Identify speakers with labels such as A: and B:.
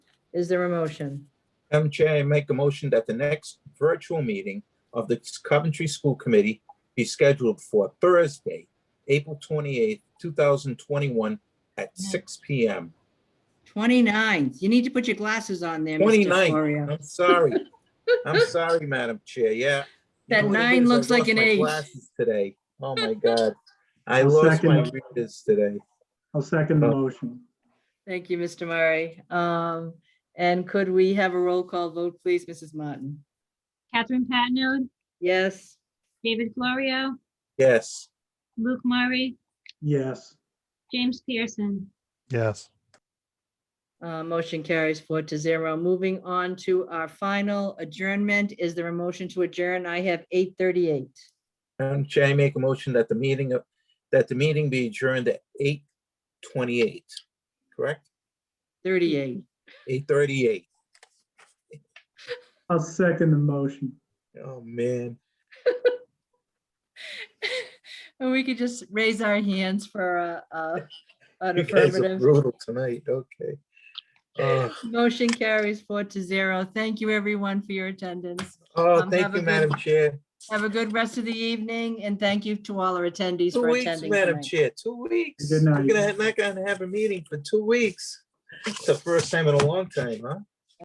A: Is there a motion?
B: Madam Chair, I make a motion that the next virtual meeting of the Coventry School Committee be scheduled for Thursday, April twenty-eighth, two thousand twenty-one at six P M.
A: 29th. You need to put your glasses on there, Mr.
B: 29th.
A: Florio.
B: I'm sorry. I'm sorry, Madam Chair. Yeah. You
A: That
B: know what it
A: nine
B: is? I
A: looks like
B: lost
A: an
B: my
A: eight.
B: glasses Today. Oh, my God. I
C: I'll
B: lost my
C: second.
B: readers today.
C: I'll second the
B: Uh,
C: motion.
A: Thank you, Mr. Murray. Um, And could we have a roll call vote, please, Mrs. Martin?
D: Catherine Patino,
A: Yes,
D: David Florio,
B: Yes.
D: Luke Murray,
C: Yes,
D: James Pearson.
E: Yes.
A: uh, motion carries four to zero. Moving on to our final adjournment. Is there a motion to adjourn? I have 8:38.
B: Madam Chair, I make a motion that the meeting of, that the meeting be adjourned at eight twenty-eight, correct?
A: 38.
B: Eight thirty-eight.
C: I'll second the motion.
B: Oh, man.
A: And we could just raise our hands for a- a- an
B: You guys are
A: affirmative.
B: brutal tonight, okay. Oh,
A: Motion carries four to zero. Thank you, everyone, for your attendance.
B: Oh,
A: Um, have
B: thank
A: a
B: you,
A: good-
B: Madam Chair.
A: Have a good rest of the evening, and thank you to all our attendees
B: Two
A: for
B: weeks,
A: attending
B: Madam
A: tonight.
B: Chair, two weeks.
C: Good
B: We're
C: night.
B: gonna, not gonna have a meeting for two weeks. It's the first time in a long time, huh?